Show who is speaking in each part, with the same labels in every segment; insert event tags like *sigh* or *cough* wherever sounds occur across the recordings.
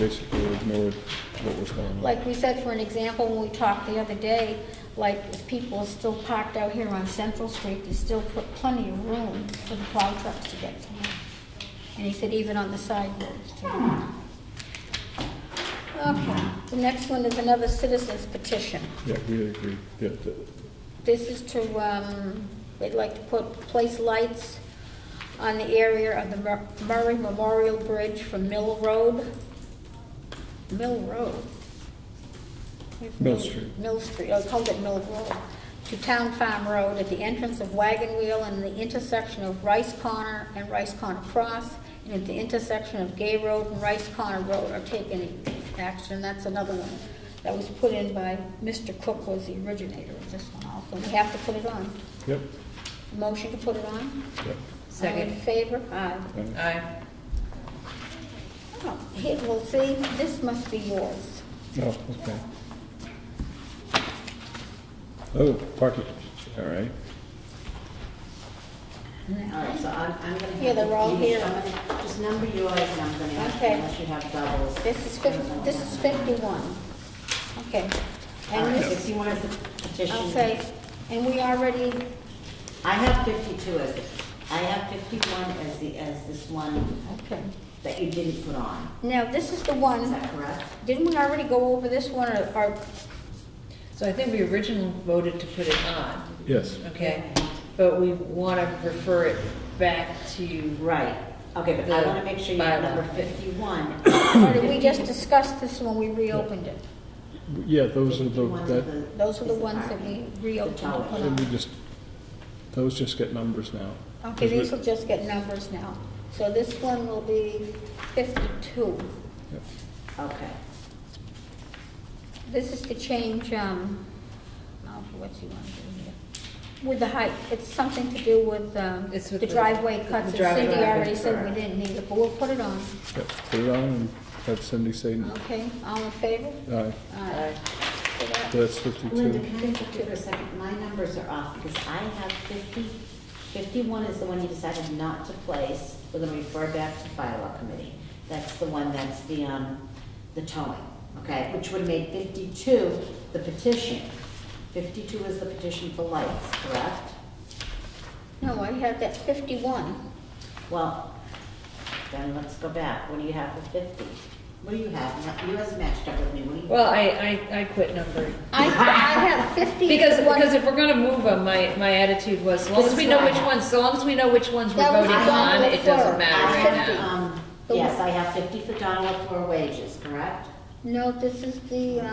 Speaker 1: basically ignored what was going on.
Speaker 2: Like we said, for an example, when we talked the other day, like if people are still parked out here on Central Street, there's still pl- plenty of room for the plow trucks to get through. And he said even on the side roads too. Okay, the next one is another citizen's petition.
Speaker 1: Yeah, we agree, yeah, that-
Speaker 2: This is to, um, they'd like to put, place lights on the area of the Mur- Murray Memorial Bridge from Mill Road. Mill Road? Where's
Speaker 1: Mill Street.
Speaker 2: Mill Street, I called it Mill Road, to Town Farm Road at the entrance of Wagon Wheel and the intersection of Rice Corner and Rice Corner Cross, and at the intersection of Gay Road and Rice Corner Road are taking action, that's another one that was put in by Mr. Cook was the originator of this one also, we have to put it on.
Speaker 1: yep,
Speaker 2: Motion to put it on?
Speaker 1: yep.
Speaker 2: All in
Speaker 3: Second.
Speaker 2: favor? Aye.
Speaker 1: and-
Speaker 3: Aye.
Speaker 2: Oh, here, well, see, this must be yours.
Speaker 1: Oh, okay. Oh, parking, all right.
Speaker 2: Now,
Speaker 4: All right, so I'm, I'm gonna.
Speaker 2: Yeah, they're all
Speaker 4: have
Speaker 2: here.
Speaker 4: you- Just number yours, and I'm gonna,
Speaker 2: Okay.
Speaker 4: unless you have doubles.
Speaker 2: This is fif, this is fifty-one. Okay.
Speaker 4: All
Speaker 2: And
Speaker 4: right,
Speaker 2: this,
Speaker 4: Fifty-one is the petition.
Speaker 2: okay, and we already,
Speaker 4: I have fifty-two as, the- I have fifty-one as the, as this one
Speaker 2: okay.
Speaker 4: that you didn't put on,
Speaker 2: Now, this is the
Speaker 4: is
Speaker 2: one,
Speaker 4: that correct?
Speaker 2: didn't we already go over this one, or, or,
Speaker 3: So I think we originally voted to put it on,
Speaker 1: Yes,
Speaker 3: okay? But we want to refer it back to,
Speaker 4: Right, okay, but I wanna make sure you have number fifty-one.
Speaker 2: or did we just discuss this when we reopened it?
Speaker 1: yeah, those are the,
Speaker 4: 51 is
Speaker 1: that,
Speaker 4: the-
Speaker 2: Those are the
Speaker 4: is
Speaker 2: ones that we
Speaker 4: parking.
Speaker 2: reopened. and put
Speaker 1: and we
Speaker 2: on.
Speaker 1: just, those just get numbers now.
Speaker 2: Okay, these will just get numbers now. So this one will be fifty-two.
Speaker 1: Yeah.
Speaker 4: Okay,
Speaker 2: This is to change, um, now for what you want to do here. With the height, it's something to do with, um,
Speaker 3: It's with
Speaker 2: the
Speaker 3: the-
Speaker 2: driveway
Speaker 3: the
Speaker 2: cuts. and
Speaker 3: driveway
Speaker 2: Cindy already said we
Speaker 4: curve.
Speaker 2: didn't need it, but we'll put it on.
Speaker 1: Yep, put it on and have Cindy say,
Speaker 2: Okay, all in favor?
Speaker 1: aye,
Speaker 2: Aye. So that-
Speaker 1: that's fifty-two.
Speaker 4: Linda, can I interrupt you for a second, my numbers are off, because I have 50 51 is the one you decided not to place, we're gonna refer back to bylaw committee. That's the one that's the, um, the towing, okay, which would make fifty-two the petition. Fifty-two is the petition for lights, correct?
Speaker 2: No, I had that
Speaker 3: *laughs*
Speaker 2: fifty-one.
Speaker 4: Well, then let's go back, what do you have for fifty? What do you have, you has matched up with me, what do you?
Speaker 3: well, I, I, I quit numbering.
Speaker 2: I, I have fifty.
Speaker 3: Because, because if we're gonna move them, my, my attitude was, as long as we know which ones, so long as we know which ones we're
Speaker 2: That was
Speaker 3: voting
Speaker 4: the one
Speaker 3: on,
Speaker 2: with
Speaker 3: it doesn't
Speaker 2: her.
Speaker 3: matter
Speaker 4: I
Speaker 3: right
Speaker 4: have,
Speaker 3: now.
Speaker 4: um, Yes, I have fifty for Donald for wages, correct?
Speaker 2: No, this is the, uh,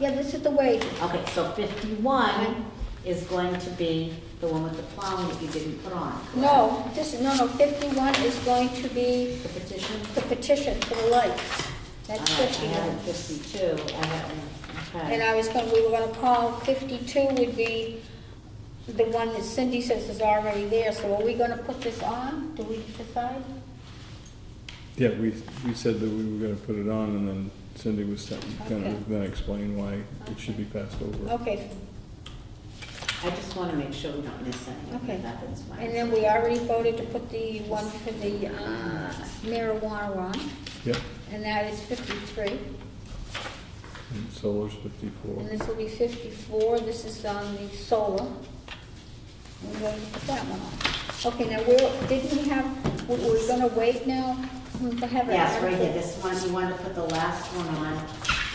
Speaker 2: yeah, this is the wages.
Speaker 4: Okay, so fifty-one is going to be the one with the plowing that you didn't put on, correct?
Speaker 2: No, this, no, no, fifty-one is going to be
Speaker 4: The petition?
Speaker 2: the petition for the lights. That's
Speaker 4: All right, I
Speaker 2: fifty-one.
Speaker 4: have it fifty-two, I have, okay.
Speaker 2: And I was gonna, we were gonna call fifty-two would be the one that Cindy says is already there, so are we gonna put this on? Do we decide?
Speaker 1: Yeah, we, we said that we were gonna put it on and then Cindy was gonna,
Speaker 2: Okay.
Speaker 1: then explain why it should be passed over.
Speaker 2: Okay,
Speaker 4: I just wanna make sure we don't miss
Speaker 2: Okay.
Speaker 4: anything, that's my.
Speaker 2: and then we already voted to put the one for the uh, marijuana on,
Speaker 1: Yep,
Speaker 2: and that is fifty-three,
Speaker 1: and solar's fifty-four.
Speaker 2: and this will be fifty-four, this is on the solar. We're going to put that one on. Okay, now, we're, didn't we have, we- we're gonna wait now Hmm, to have an
Speaker 4: Yes, right here,
Speaker 2: article?
Speaker 4: this one, you wanted to put the last one on,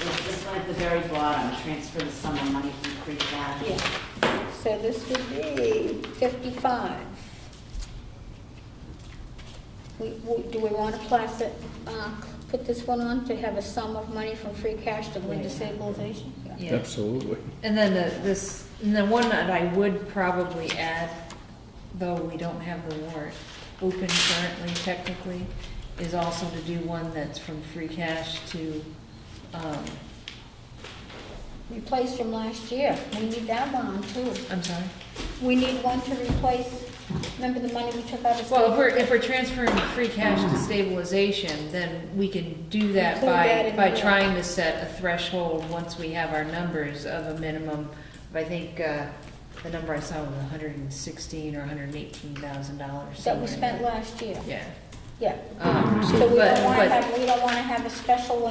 Speaker 4: It's this one at the very bottom, transfer the sum of money from free cash.
Speaker 2: Yeah, so this would be fifty-five. We, we, do we wanna class it, uh, put this one on to have a sum of money from free cash to win stabilization?
Speaker 3: Yeah.
Speaker 1: Absolutely.
Speaker 3: And then the, this, and the one that I would probably add, though we don't have the warrant open currently technically, is also to do one that's from free cash to, um,
Speaker 2: Replace from last year, we need that one on too.
Speaker 3: I'm sorry.
Speaker 2: We need one to replace, remember the money we took out of.
Speaker 3: Well, if we're, if we're transferring free cash to stabilization, then we can do that
Speaker 2: Include that
Speaker 3: by,
Speaker 2: in
Speaker 3: by
Speaker 2: the-
Speaker 3: trying to set a threshold once we have our numbers of a minimum. of, I think, uh, the number I saw was hundred and sixteen or hundred and eighteen thousand dollars.
Speaker 2: That we spent last year,
Speaker 3: Yeah.
Speaker 2: yeah.
Speaker 3: Um,
Speaker 2: So we
Speaker 3: but-
Speaker 2: don't wanna
Speaker 3: but-
Speaker 2: have, we don't wanna have a special